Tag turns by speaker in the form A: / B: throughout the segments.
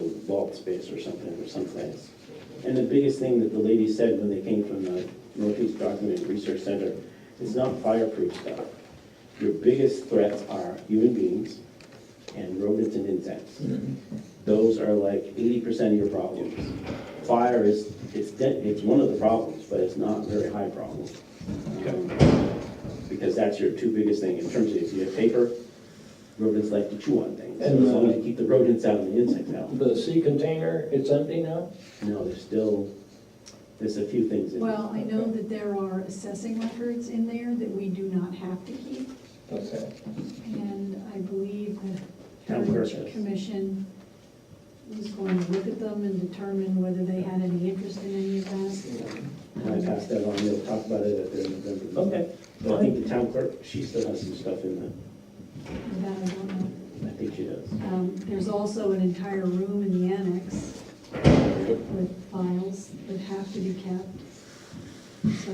A: vault space or something, or someplace. And the biggest thing that the lady said when they came from the Northeast Document Research Center, it's not fireproof stuff. Your biggest threats are human beings and rodents and insects. Those are like eighty percent of your problems. Fire is, it's, de- it's one of the problems, but it's not a very high problem. Um, Because that's your two biggest thing in terms of if you have paper, rodents like to chew on things. So
B: And,
A: as long as
B: uh,
A: you keep the rodents out and the insects out.
B: The sea container, it's empty now?
A: No, there's still, there's a few things in there.
C: Well, I know that there are assessing records in there that we do not have to keep,
B: Okay.
C: and I believe the
A: Town clerk
C: Heritage
A: does.
C: Commission was going to look at them and determine whether they had any interest in any of that.
A: When I pass that on, they'll talk about it at their November meeting.
B: Okay.
A: But I think the town clerk, she still has some stuff in there.
C: That I don't know.
A: I think she does.
C: Um, There's also an entire room in the annex with files that have to be kept.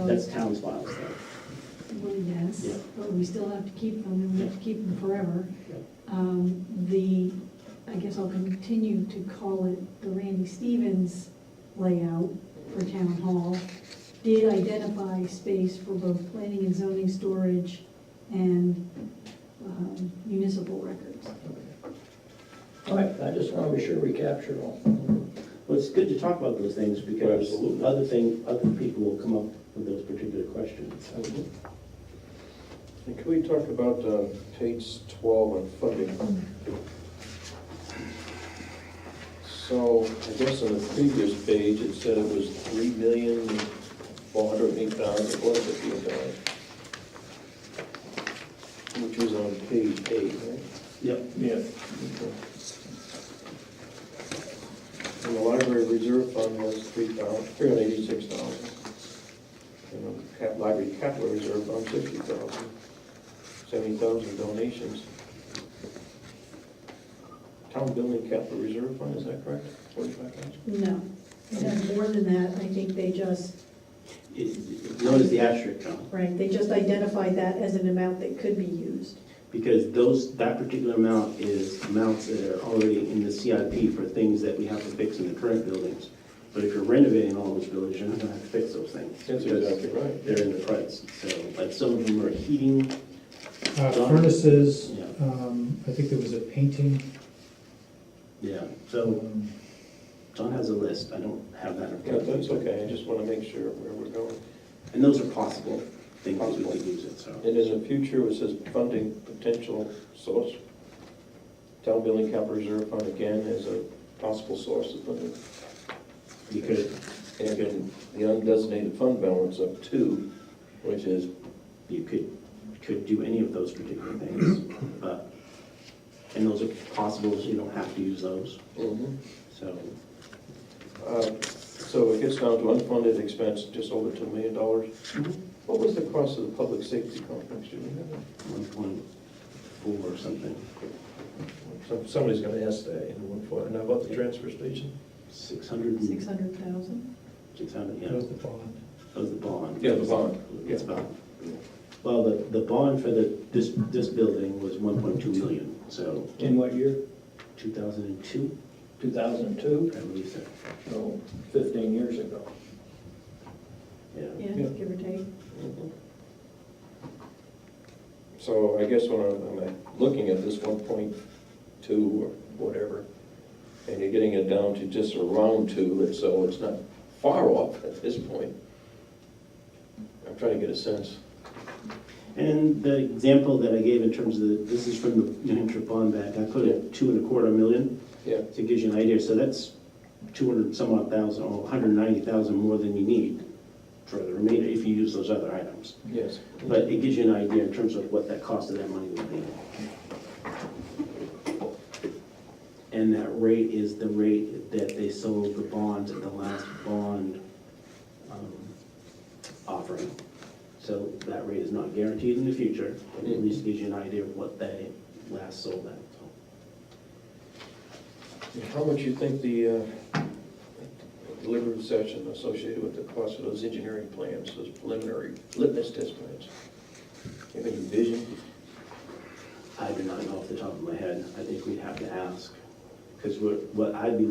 A: That's
C: So,
A: town's files though.
C: well, yes,
A: Yeah.
C: but we still have to keep them, and we have to keep them forever.
A: Yeah.
C: Um, The, I guess I'll continue to call it the Randy Stevens layout for town hall, did identify space for both planning and zoning storage and um, municipal records.
B: All right, I just want to be sure we capture all.
A: Well, it's good to talk about those things because other thing, other people will come up with those particular questions.
D: And can we talk about uh, page 12 on funding? So I guess on the previous page, it said it was three million four hundred eight thousand four hundred fifteen dollars. Which was on page eight, right?
A: Yep.
B: Yeah.
D: And the library reserve fund was three thousand, three hundred eighty-six thousand. And the cap, library capital reserve fund, sixty thousand. Seventy thousand donations. Town building capital reserve fund, is that correct? Forty-five thousand?
C: No, it has more than that, I think they just,
A: Notice the asterisk, John,
C: right, they just identified that as an amount that could be used.
A: because those, that particular amount is amounts that are already in the CIP for things that we have to fix in the current buildings. But if you're renovating all those buildings, you're not gonna have to fix those things.
D: That's
A: because
D: exactly right.
A: They're in the price, so, like, some of them are heating,
E: Uh, Furnaces,
A: Yeah.
E: um, I think there was a painting.
A: yeah, so
E: um,
A: John has a list, I don't have that. in
D: Yeah,
A: front of me.
D: that's okay, I just want to make sure where we're going.
A: And those are possible things that we could use it, so.
D: And in the future, it says funding potential source. Town building capital reserve fund again is a possible source of funding.
A: You could,
D: And then the undesignated fund balance up two, which is
A: you could, could do any of those particular things, but, and those are possible, so you don't have to use those,
D: Uh,
A: so.
D: So it gets down to unfunded expense, just over $2 million. Mm-hmm. What was the cost of the public safety complex, do you remember?
A: One point four or something,
D: Some- Somebody's gonna ask that in one point, and how about the transfer station?
A: six hundred,
C: Six hundred thousand?
A: six hundred, yeah,
E: That was the bond.
A: that was the bond.
D: Yeah, the bond,
A: It's bond. Well, the, the bond for the, this, this building was one point two million, so
B: In what year?
A: two thousand and two,
B: 2002?
A: I believe so,
B: No, 15 years ago.
A: yeah.
C: Yeah,
D: Yeah.
C: give or take.
D: Mhm. So I guess when I'm, I'm looking at this one point two or whatever, and you're getting it down to just around two, and so it's not far off at this point. I'm trying to get a sense.
A: And the example that I gave in terms of, the this is from the New Hampshire Bond Bank, I put it two and a quarter million,
D: Yeah,
A: so it gives you an idea, so that's two hundred some odd thousand, or hundred ninety thousand more than you need for the remainder, if you use those other items.
D: yes.
A: But it gives you an idea in terms of what that cost of that money would be. And that rate is the rate that they sold the bonds at the last bond um, offering. So that rate is not guaranteed in the future, but it at least gives you an idea of what they last sold at.
D: How much you think the uh, deliberative session associated with the cost of those engineering plans, those preliminary litmus test plans? You have any vision?
A: I do not know off the top of my head. I think we'd have to ask. Because what what I'd be